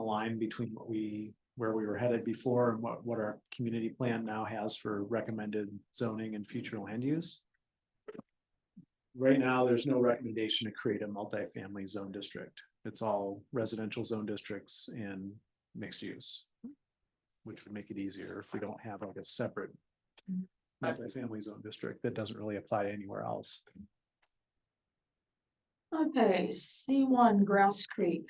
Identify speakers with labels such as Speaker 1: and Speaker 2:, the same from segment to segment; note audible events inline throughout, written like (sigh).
Speaker 1: line between what we, where we were headed before and what, what our community plan now has for recommended zoning and future land use. Right now, there's no recommendation to create a multifamily zone district. It's all residential zone districts and mixed use. Which would make it easier if we don't have like a separate Mm-hmm. multifamily zone district that doesn't really apply anywhere else.
Speaker 2: Okay, C one Grouse Creek.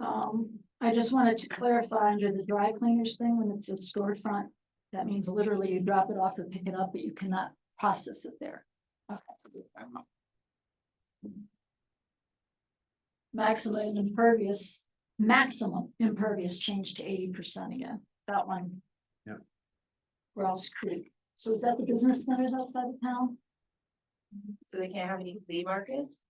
Speaker 2: Um, I just wanted to clarify under the dry cleaners thing, when it says storefront, that means literally you drop it off or pick it up, but you cannot process it there. Okay. Maximum impervious, maximum impervious change to eighty percent again, that one.
Speaker 1: Yep.
Speaker 2: Grouse Creek, so is that the business centers outside of town?
Speaker 3: So they can't have any flea markets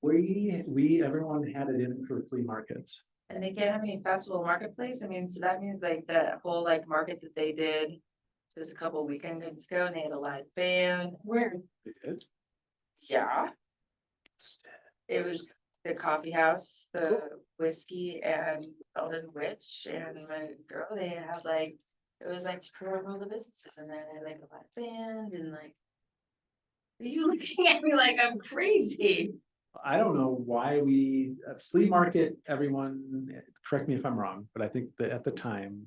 Speaker 1: We, we, everyone had it in for flea markets.
Speaker 3: and they can't have any festival marketplace. I mean, so that means like that whole like market that they did. Just a couple weekends ago and they had a live band.
Speaker 2: Where?
Speaker 1: They did.
Speaker 3: Yeah, it was the coffee house, the whiskey and Elden Witch and my girl, they had like. It was like to promote all the businesses in there. They had like a live band and like. (laughs) Are you looking at me like I'm crazy?
Speaker 1: I don't know why we, uh, flea market, everyone, eh, correct me if I'm wrong, but I think that at the time.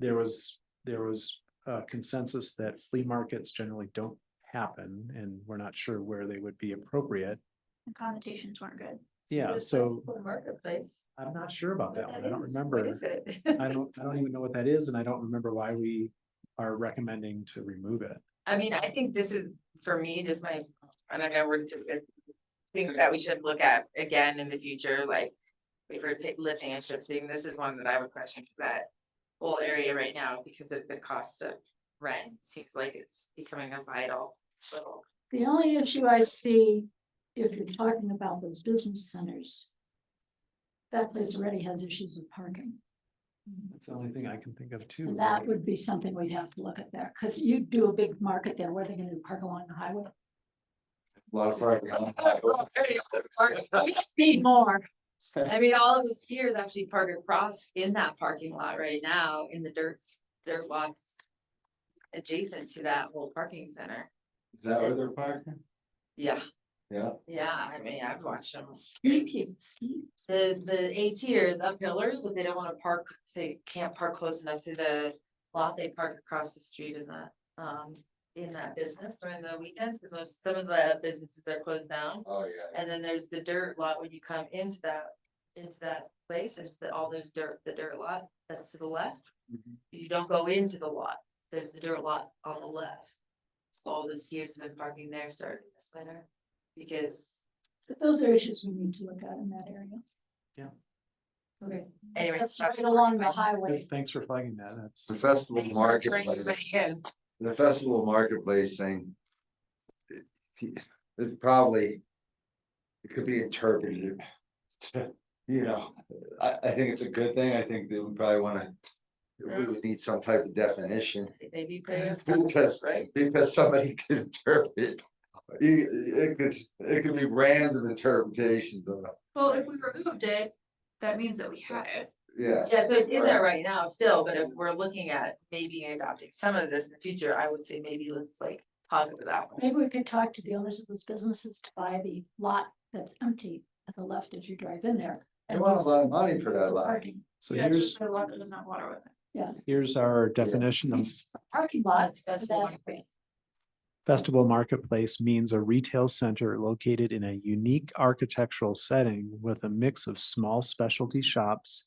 Speaker 1: There was, there was a consensus that flea markets generally don't happen and we're not sure where they would be appropriate.
Speaker 2: The connotations weren't good.
Speaker 3: It
Speaker 1: Yeah,
Speaker 3: was
Speaker 1: so
Speaker 3: festival Marketplace.
Speaker 1: I'm not sure about that
Speaker 3: What
Speaker 1: one. I don't
Speaker 3: is? What
Speaker 1: remember.
Speaker 3: is it?
Speaker 1: I don't, I don't even know what that is and I don't remember why we are recommending to remove it.
Speaker 3: (laughs) I mean, I think this is, for me, just my, I don't know, we're just. uh, Things that we should look at again in the future, like. We were pi- lifting and shifting, this is one that I would question, 'cause that. Whole area right now, because of the cost of rent, seems like it's becoming a vital little.
Speaker 2: The only issue I see, if you're talking about those business centers. That place already has issues with parking,
Speaker 1: That's the only thing I can think of too.
Speaker 2: and that would be something we'd have to look at there, because you do a big market there, where are they gonna park along the highway?
Speaker 4: A lot of parking.
Speaker 3: I
Speaker 2: Need more,
Speaker 3: mean, all of the skiers actually park across in that parking lot right now, in the dirt, dirt lots. Adjacent to that whole parking center,
Speaker 4: Is that where they're parking?
Speaker 3: yeah.
Speaker 4: Yeah.
Speaker 3: Yeah, I mean, I've watched them.
Speaker 2: ski people, ski.
Speaker 3: The, the ATers up pillars, if they don't wanna park, if they can't park close enough to the lot, they park across the street in that, um, in that business during the weekends, cause most, some of the businesses are closed down.
Speaker 4: Oh, yeah.
Speaker 3: And then there's the dirt lot when you come into that, into that place, there's the, all those dirt, the dirt lot that's to the left.
Speaker 1: Mhm.
Speaker 3: You don't go into the lot, there's the dirt lot on the left. So all the skiers have been parking there starting this winter, because
Speaker 2: But those are issues we need to look at in that area.
Speaker 1: Yeah.
Speaker 2: Okay.
Speaker 3: Anyway,
Speaker 2: That's
Speaker 3: that's-
Speaker 2: right along the highway,
Speaker 1: Thanks for flagging that. That's.
Speaker 4: The festival
Speaker 3: Thanks for turning it
Speaker 4: marketplace,
Speaker 3: back in.
Speaker 4: the festival marketplace thing. it- It probably. It could be interpreted. (laughs) to, You know, I, I think it's a good thing. I think that we probably wanna. We would need some type of definition.
Speaker 3: They do put in sponsors,
Speaker 4: Because,
Speaker 3: right?
Speaker 4: because somebody (laughs) could interpret. it. You- It could, it could be random interpretations of, it.
Speaker 5: Well, if we removed it, that means that we had it.
Speaker 4: yes.
Speaker 3: Yeah, so it's in there right now still, but if we're looking at maybe adopting some of this in the future, I would say maybe let's like talk about that one.
Speaker 2: maybe we could talk to the owners of those businesses to buy the lot that's empty at the left as you drive in there.
Speaker 4: They want a lot of money for that lot.
Speaker 2: Parking.
Speaker 1: So
Speaker 5: That's
Speaker 1: here's,
Speaker 5: just the lot that doesn't have water with it.
Speaker 1: here's our definition of
Speaker 2: Parking lots.
Speaker 3: That's
Speaker 2: that-
Speaker 3: one place.
Speaker 1: festival marketplace means a retail center located in a unique architectural setting with a mix of small specialty shops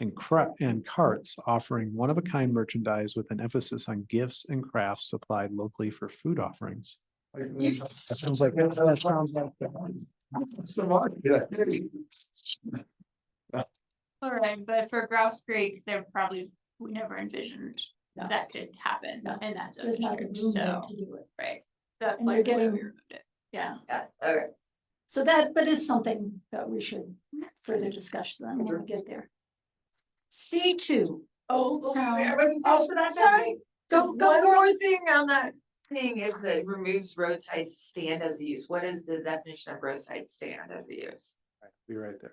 Speaker 1: and cra- and carts offering one-of-a-kind merchandise with an emphasis on gifts and crafts supplied locally for food offerings. That sounds like, that sounds like.
Speaker 5: Alright, but for Grouse Creek, they're probably, we never envisioned
Speaker 2: No.
Speaker 5: that could happen
Speaker 2: No,
Speaker 5: in that zone
Speaker 2: There's not a
Speaker 5: district,
Speaker 2: room there
Speaker 5: so,
Speaker 2: to do it,
Speaker 5: right. That's
Speaker 2: And you're
Speaker 5: like why we
Speaker 2: getting-
Speaker 5: removed it.
Speaker 2: yeah,
Speaker 3: Yeah, okay.
Speaker 2: so that, but it's something that we should further discuss then when we get there. C two, Old
Speaker 3: I
Speaker 2: Town.
Speaker 3: wasn't
Speaker 2: Oh,
Speaker 3: finished with that
Speaker 2: Sorry,
Speaker 3: Don't,
Speaker 2: One
Speaker 3: don't go over thing on that thing is that removes roadside stand as a use. What is the definition of roadside stand as a use?
Speaker 1: Be right there.